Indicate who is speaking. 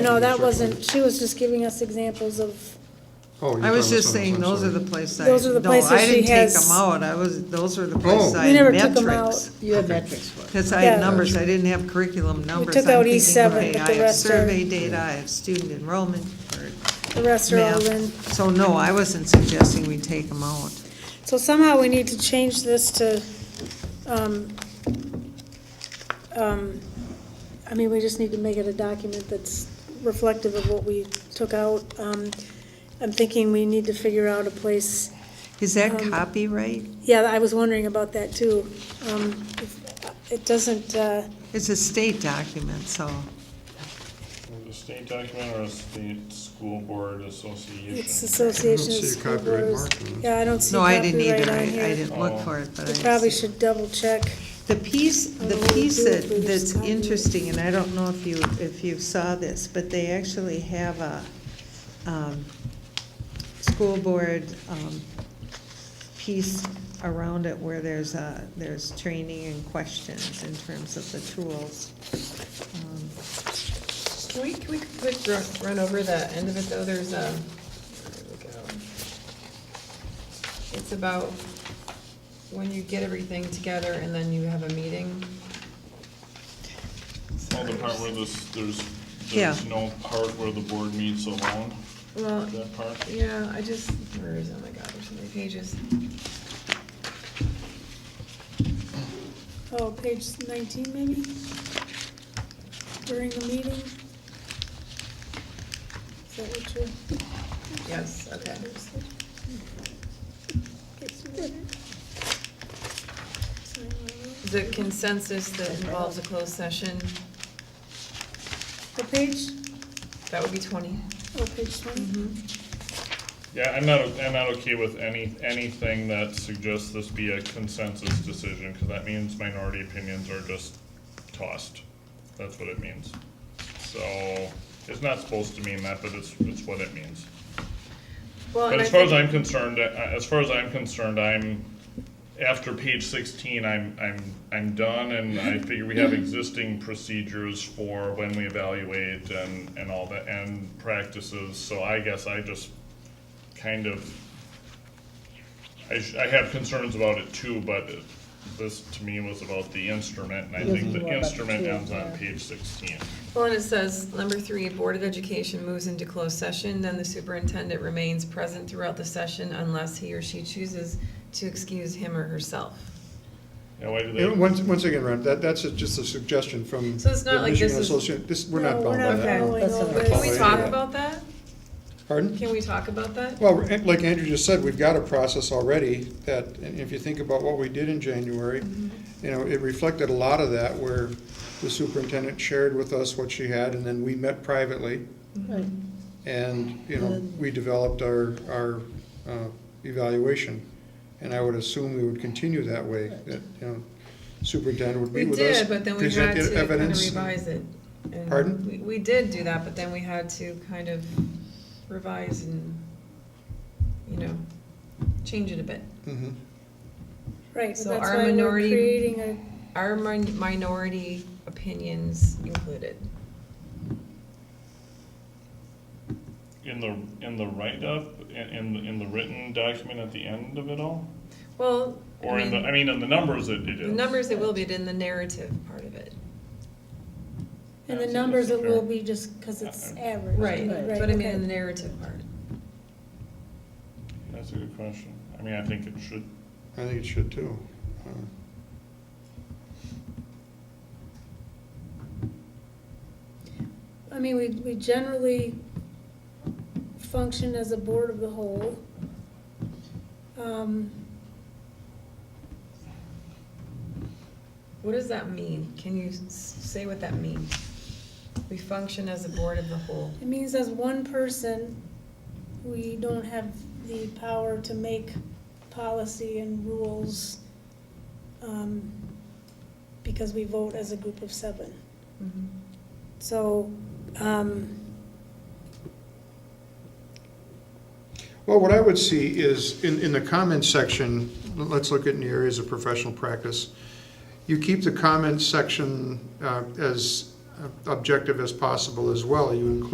Speaker 1: No, that wasn't, she was just giving us examples of,
Speaker 2: Oh, you're
Speaker 3: I was
Speaker 2: talking
Speaker 3: just
Speaker 2: about something else,
Speaker 3: saying, those are
Speaker 2: sorry.
Speaker 3: the places I,
Speaker 1: Those are the
Speaker 3: no,
Speaker 1: places
Speaker 3: I
Speaker 1: she
Speaker 3: didn't take
Speaker 1: has-
Speaker 3: them out, I was, those are the
Speaker 2: Oh.
Speaker 3: places I
Speaker 1: We never
Speaker 3: had
Speaker 1: took 'em
Speaker 3: metrics.
Speaker 4: You have metrics for it.
Speaker 3: Cause I had
Speaker 1: Yeah.
Speaker 3: numbers, I didn't have curriculum numbers.
Speaker 1: took
Speaker 3: I'm
Speaker 1: out
Speaker 3: thinking,
Speaker 1: E7,
Speaker 3: okay,
Speaker 1: but the
Speaker 3: I have
Speaker 1: rest are-
Speaker 3: survey data, I have student enrollment, or
Speaker 1: the rest are all
Speaker 3: Math.
Speaker 1: in.
Speaker 3: so no, I wasn't suggesting we take them out.
Speaker 1: So somehow we need to change this to, um, um, I mean, we just need to make it a document that's reflective of what we took out. Um, I'm thinking we need to figure out a place,
Speaker 3: Is that
Speaker 1: Um,
Speaker 3: copyright?
Speaker 1: yeah, I was wondering about that too. Um, if- It doesn't, uh,
Speaker 3: It's a state document, so,
Speaker 5: The state document or the state school board association?
Speaker 1: it's Association of
Speaker 2: see a
Speaker 1: School
Speaker 2: copyright
Speaker 1: Boards.
Speaker 2: mark on it.
Speaker 1: Yeah, I don't see
Speaker 3: no, I didn't
Speaker 1: copyright
Speaker 3: either, I,
Speaker 1: on
Speaker 3: I
Speaker 1: here.
Speaker 3: didn't look
Speaker 5: Oh.
Speaker 3: for it, but I.
Speaker 1: We probably
Speaker 3: see.
Speaker 1: should double check.
Speaker 3: The piece,
Speaker 1: I
Speaker 3: the
Speaker 1: don't know
Speaker 3: piece
Speaker 1: if you
Speaker 3: that,
Speaker 1: agree with
Speaker 3: that's
Speaker 1: Scott.
Speaker 3: interesting, and I don't know if you, if you saw this, but they actually have a, um, school board, um, piece around it where there's a, there's training and questions in terms of the tools. Um,
Speaker 4: Can we, can we quick run, run over the end of it though? There's um, a, where do we go? It's about when you get everything together and then you have a meeting.
Speaker 5: Well, the part where this, there's,
Speaker 3: Yeah.
Speaker 5: there's no part where the board meets alone,
Speaker 4: Well,
Speaker 5: that part?
Speaker 4: yeah, I just, where is, oh my God, there's so many pages.
Speaker 1: Oh, page nineteen maybe? During the meeting? Is that what you're?
Speaker 4: Yes, okay. The consensus that involves a closed session,
Speaker 1: The page?
Speaker 4: that would be twenty.
Speaker 1: Oh, page twenty?
Speaker 5: Yeah, I'm not, I'm not okay with any, anything that suggests this be a consensus decision, because that means minority opinions are just tossed. That's what it means. So, it's not supposed to mean that, but it's, it's what it means.
Speaker 4: Well,
Speaker 5: But
Speaker 4: and I
Speaker 5: as far as
Speaker 4: think-
Speaker 5: I'm concerned, uh, as far as I'm concerned, I'm, after page sixteen, I'm, I'm, I'm done, and I figure we have existing procedures for when we evaluate and, and all that, and practices, so I guess I just kind of, I, sh- I have concerns about it too, but it- this to me was about the instrument, and I think the instrument ends on page sixteen.
Speaker 4: Well, and it says, number three, Board of Education moves into closed session, then the superintendent remains present throughout the session unless he or she chooses to excuse him or herself.
Speaker 5: Yeah, why do they?
Speaker 2: And once, once again, Ron, that, that's a- just a suggestion from
Speaker 4: So it's not
Speaker 2: the
Speaker 4: like
Speaker 2: Michigan
Speaker 4: this is-
Speaker 2: Association, this, we're not
Speaker 1: No,
Speaker 2: bound by that.
Speaker 1: following
Speaker 4: That's
Speaker 1: all
Speaker 4: not-
Speaker 1: this.
Speaker 4: Can we talk
Speaker 2: Yeah.
Speaker 4: about that?
Speaker 2: Pardon?
Speaker 4: Can we talk about that?
Speaker 2: Well, and like Andrew just said, we've got a process already that, and if you think about what we did in January, you know, it reflected a lot of that where the superintendent shared with us what she had and then we met privately.
Speaker 6: Right.
Speaker 2: And, you know, we developed our, our uh, evaluation. And I would assume we would continue that way, that, you know, superintendent would
Speaker 4: We
Speaker 2: meet with us.
Speaker 4: did, but then we
Speaker 2: present
Speaker 4: had to kind of
Speaker 2: evidence.
Speaker 4: revise it. And
Speaker 2: Pardon?
Speaker 4: we- We did do that, but then we had to kind of revise and, you know, change it a bit.
Speaker 2: Mhm.
Speaker 1: Right, so
Speaker 4: So
Speaker 1: that's
Speaker 4: our
Speaker 1: why we're
Speaker 4: minority-
Speaker 1: creating a,
Speaker 4: Are min- minority opinions included?
Speaker 5: In the, in the write-up, in, in, the- in the written document at the end of it all?
Speaker 4: Well,
Speaker 5: Or
Speaker 4: I
Speaker 5: in the,
Speaker 4: mean,
Speaker 5: I mean, in the numbers it it
Speaker 4: the
Speaker 5: is.
Speaker 4: numbers it will be in the narrative part of it.
Speaker 1: and the
Speaker 5: Yeah, so
Speaker 1: numbers it
Speaker 5: that's
Speaker 1: will
Speaker 5: fair.
Speaker 1: be just because it's average.
Speaker 4: Right,
Speaker 6: Right.
Speaker 4: but I mean,
Speaker 1: okay.
Speaker 4: in the narrative part.
Speaker 5: That's a good question. I mean, I think it should,
Speaker 2: I think it should too. Uh,
Speaker 1: I mean, we, we generally function as a board of the whole. Um,
Speaker 4: What does that mean? Can you s- say what that means? We function as a board of the whole.
Speaker 1: It means as one person, we don't have the power to make policy and rules, um, because we vote as a group of seven. So, um,
Speaker 2: Well, what I would see is, in, in the comments section, let's look at in the areas of professional practice. You keep the comments section uh, as objective as uh, possible as well. You include